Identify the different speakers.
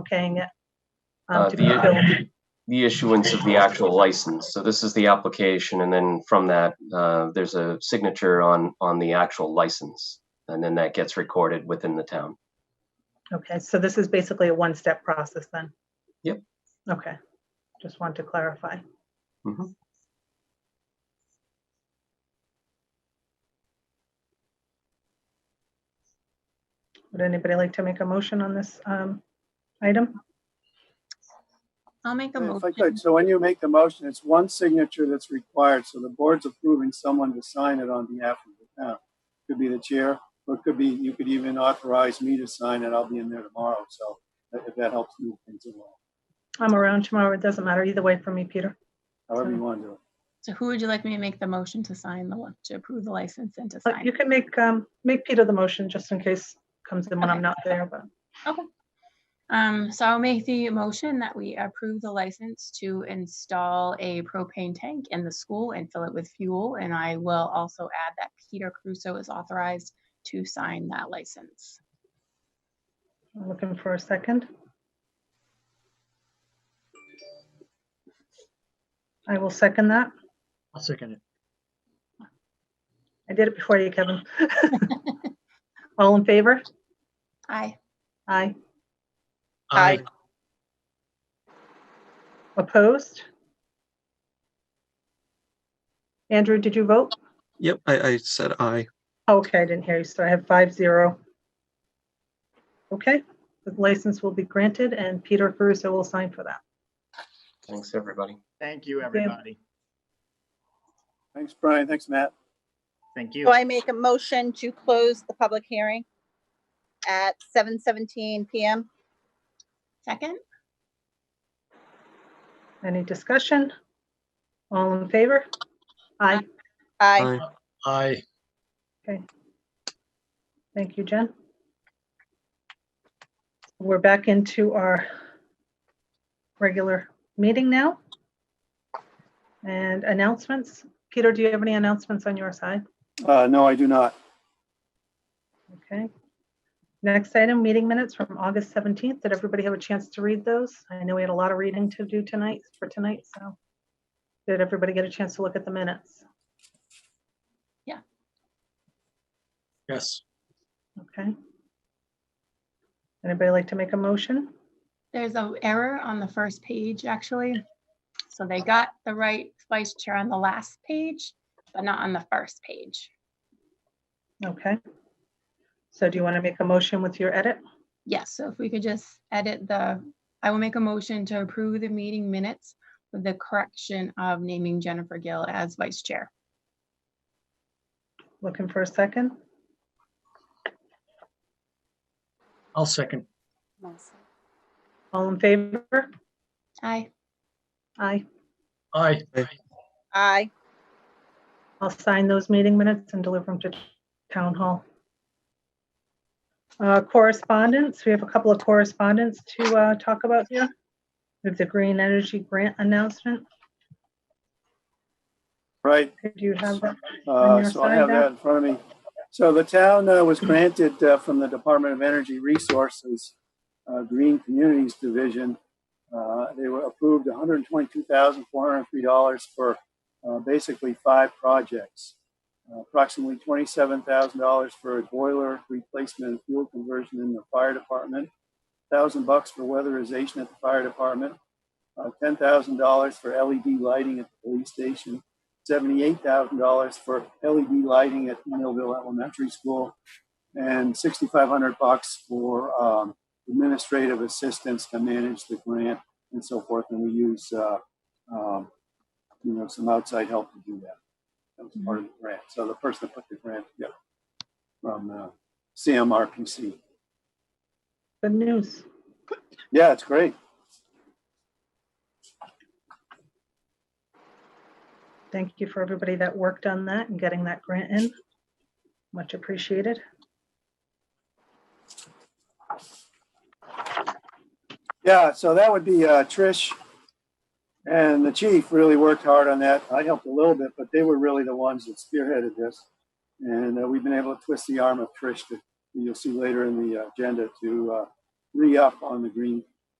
Speaker 1: okaying it.
Speaker 2: Uh,
Speaker 1: Um, to be
Speaker 2: the-
Speaker 1: filled.
Speaker 2: the issuance of the actual license. So this is the application, and then from that, uh, there's a signature on on the actual license, and then that gets recorded within the town.
Speaker 1: Okay, so this is basically a one-step process then?
Speaker 2: Yep.
Speaker 1: Okay, just want to clarify.
Speaker 2: Mhm.
Speaker 1: Would anybody like to make a motion on this um, item?
Speaker 3: I'll make a
Speaker 4: If I
Speaker 3: motion.
Speaker 4: could, so when you make the motion, it's one signature that's required, so the board's approving someone to sign it on behalf of the town. Could be the chair, or it could be, you could even authorize me to sign it, I'll be in there tomorrow, so uh, if that helps move things along,
Speaker 1: I'm around tomorrow, it doesn't matter either way for me, Peter.
Speaker 4: however you want to do it.
Speaker 3: So who would you like me to make the motion to sign the, to approve the license
Speaker 4: Uh,
Speaker 3: and to
Speaker 1: But
Speaker 3: sign?
Speaker 1: you can make, um, make Peter the motion just in case comes in when I'm
Speaker 3: Okay.
Speaker 1: not there, but
Speaker 3: Um, so I'll make the motion that we approve the license to install a propane tank in the school and fill it with fuel. And I will also add that Peter Crusoe is authorized to sign that license.
Speaker 1: I'm looking for a second. I will second that.
Speaker 5: I'll second it.
Speaker 1: I did it before you, Kevin. All in favor?
Speaker 3: Aye.
Speaker 1: Aye.
Speaker 6: Aye.
Speaker 1: Opposed? Andrew, did you vote?
Speaker 6: Yep, I, I said aye.
Speaker 1: Okay, I didn't hear you, so I have five zero. Okay, the license will be granted and Peter Caruso will sign for that.
Speaker 2: Thanks, everybody.
Speaker 5: Thank you, everybody.
Speaker 4: Thanks, Brian, thanks, Matt.
Speaker 5: Thank you.
Speaker 6: Do I make a motion to close the public hearing at seven seventeen PM?
Speaker 3: Second?
Speaker 1: Any discussion? All in favor? Aye.
Speaker 6: Aye.
Speaker 5: Aye.
Speaker 1: Thank you, Jen. We're back into our regular meeting now. And announcements. Peter, do you have any announcements on your side?
Speaker 4: Uh, no, I do not.
Speaker 1: Okay. Next item, meeting minutes from August 17th. Did everybody have a chance to read those? I know we had a lot of reading to do tonight, for tonight, so. Did everybody get a chance to look at the minutes?
Speaker 5: Yes.
Speaker 1: Okay. Anybody like to make a motion?
Speaker 3: There's a error on the first page, actually. So they got the right vice chair on the last page, but not on the first page.
Speaker 1: Okay. So do you want to make a motion with your edit?
Speaker 3: Yes, so if we could just edit the, I will make a motion to approve the meeting minutes with the correction of naming Jennifer Gill as vice chair.
Speaker 1: Looking for a second?
Speaker 5: I'll second.
Speaker 1: All in favor?
Speaker 3: Aye.
Speaker 1: Aye.
Speaker 5: Aye.
Speaker 6: Aye.
Speaker 1: I'll sign those meeting minutes and deliver them to town hall. Uh, Correspondence, we have a couple of correspondence to uh, talk about here. With the green energy grant announcement,
Speaker 4: Right,
Speaker 1: Did you have that? On
Speaker 4: Uh,
Speaker 1: your
Speaker 4: So I
Speaker 1: side
Speaker 4: have
Speaker 1: there?
Speaker 4: that in front of me. So the town uh, was granted uh, from the Department of Energy Resources uh, Green Communities Division. uh, They were approved $122,403 for uh, basically five projects. Uh, Approximately $27,000 for a boiler replacement and fuel conversion in the fire department, 1,000 bucks for weatherization at the fire department, uh, $10,000 for LED lighting at the police station, seventy-eight thousand dollars for LED lighting at Millville Elementary School, and sixty-five hundred bucks for um, administrative assistance to manage the grant and so forth. And we use, uh, um, you know, some outside help to do that. That was part of the grant. So the person that put the grant together from uh, CMRPC.
Speaker 1: Good news.
Speaker 4: Yeah, it's great.
Speaker 1: Thank you for everybody that worked on that and getting that grant in. Much appreciated.
Speaker 4: Yeah, so that would be uh, Trish and the chief really worked hard on that. I helped a little bit, but they were really the ones that spearheaded this. And uh, we've been able to twist the arm of Trish, to, you'll see later in the agenda, to uh, re-up on the green